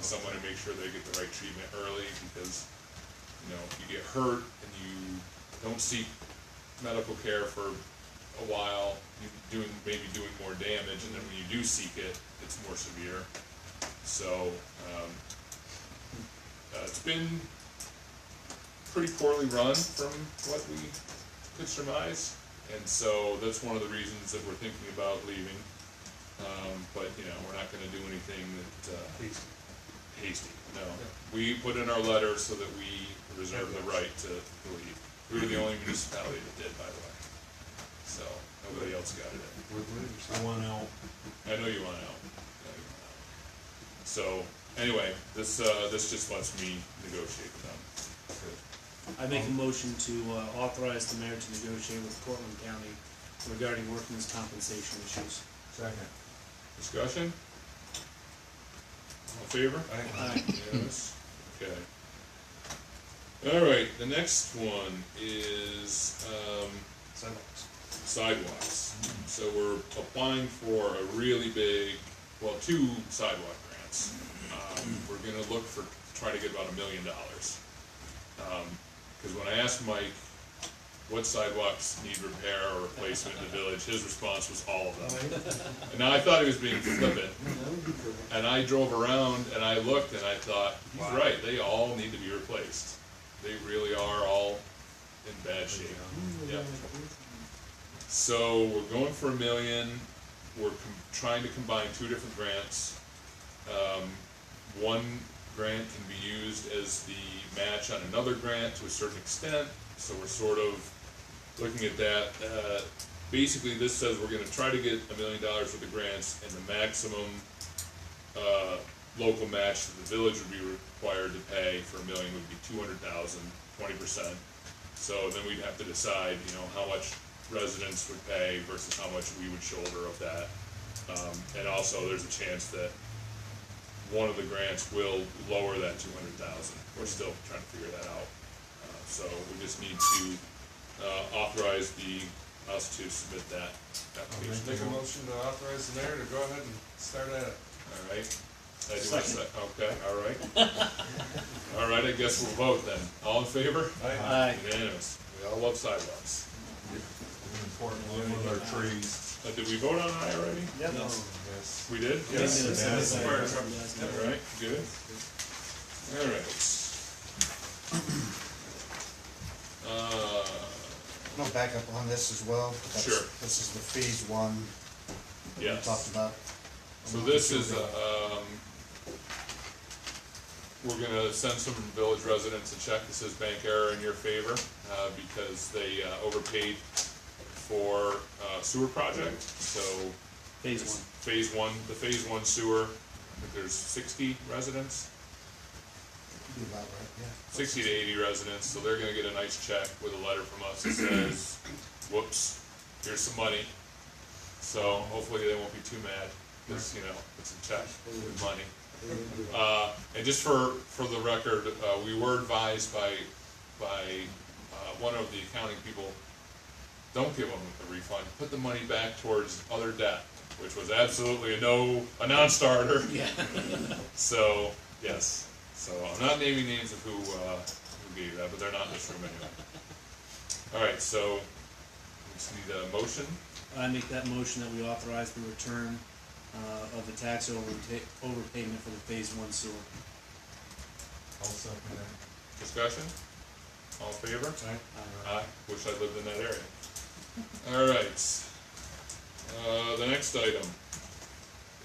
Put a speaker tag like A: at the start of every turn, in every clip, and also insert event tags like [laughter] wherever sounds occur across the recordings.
A: someone and make sure they get the right treatment early, because, you know, if you get hurt and you don't seek medical care for a while, you're doing, maybe doing more damage, and then when you do seek it, it's more severe. So, um, uh, it's been pretty poorly run from what we could surmise, and so that's one of the reasons that we're thinking about leaving. Um, but, you know, we're not gonna do anything that, uh,
B: Please.
A: hasty, no. We put in our letter so that we reserve the right to leave. We were the only municipality that did, by the way. So, nobody else got it.
B: We're the one out.
A: I know you want out. I know you want out. So, anyway, this, uh, this just lets me negotiate with them.
C: I make a motion to uh, authorize the mayor to negotiate with Portland County regarding workmen's compensation issues.
B: Second.
A: Discussion? All in favor?
C: Aye.
A: Yes, [laughs] okay. All right, the next one is, um,
B: Sidewalks.
A: sidewalks. So we're applying for a really big, well, two sidewalk grants. Um, we're gonna look for, try to get about a million dollars. Um, cause when I asked Mike what sidewalks need repair or replacement in the village, his response was all of them. And now I thought he was being flippant. And I drove around and I looked and I thought, he's right, they all need to be replaced. They really are all in bad shape. Yeah. So we're going for a million. We're com- trying to combine two different grants. Um, one grant can be used as the match on another grant to a certain extent. So we're sort of looking at that. Uh, basically, this says we're going to try to get a million dollars worth of grants, and the maximum uh, local match that the village would be required to pay for a million would be two hundred thousand, twenty percent. So then we'd have to decide, you know, how much residents would pay versus how much we would shoulder of that. Um, and also, there's a chance that one of the grants will lower that two hundred thousand. We're still trying to figure that out. Uh, So we just need to, uh, authorize the, us to submit that application.
D: Make a motion to authorize the mayor to go ahead and start at it.
A: All right. I do want to say, okay, all right. [laughs] All right, I guess we'll vote then. All in favor?
C: Aye.
A: Unanimous. We all love sidewalks.
B: Important one with our trees.
A: Uh, did we vote on I already?
C: Yep.
B: Yes.
A: We did?
B: Yes.
C: Yes.
A: All right, good. All right.
E: [coughs]
A: Uh,
E: I'm gonna back up on this as well. That's-
A: Sure.
E: This is the phase one that we
A: yes.
E: talked about.
A: So this is, uh, um, we're gonna send some village residents a check that says bank error in your favor, uh, because they uh, overpaid for uh, sewer project, so.
C: Phase
A: it's
C: one.
A: Phase one, the phase one sewer, I think there's sixty residents,
E: Be about right, yeah.
A: sixty to eighty residents, so they're gonna get a nice check with a letter from us that says, whoops, here's some money. So hopefully they won't be too mad, cause, you know, it's a check with money. Uh, and just for, for the record, uh, we were advised by, by, uh, one of the accounting people, don't give them a refund, put the money back towards other debt, which was absolutely a no, a non-starter.
C: Yeah.
A: So, yes, so I'm not naming names of who, uh, who gave that, but they're not in this room anyway. Alright, so, we just need a motion,
C: I make that motion that we authorize the return uh, of the tax overta- overpayment for the phase one sewer.
B: I'll second that.
A: discussion, all in favor?
C: Uh,
A: I wish I lived in that area. Alright, uh, the next item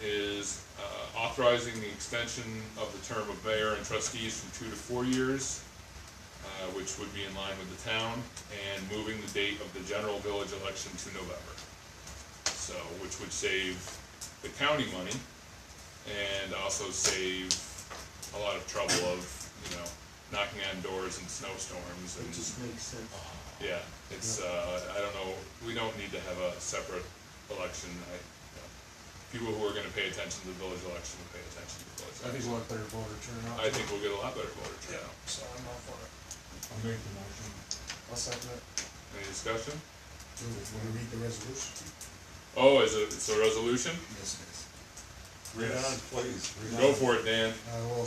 A: is, uh, authorizing the extension of the term of mayor and trustees from two to four years, uh, which would be in line with the town, and moving the date of the general village election to November. So, which would save the county money, and also save a lot of trouble of, you know, knocking on doors in snowstorms and.
C: makes sense.
A: Yeah, it's, uh, I don't know, we don't need to have a separate election, I, you know, people who are gonna pay attention to the village election will pay attention to the village
B: I
A: election.
B: think we'll have better voter turnout.
A: I think we'll get a lot better voter turnout.
D: So I'm all for it.
B: I'll make the motion.
D: I'll second it.
A: Any discussion?
E: Do we wanna read the resolution?
A: Oh, is it, it's a resolution?
E: Yes, it is.
B: Read on, please.
A: Go for it, Dan.
E: I will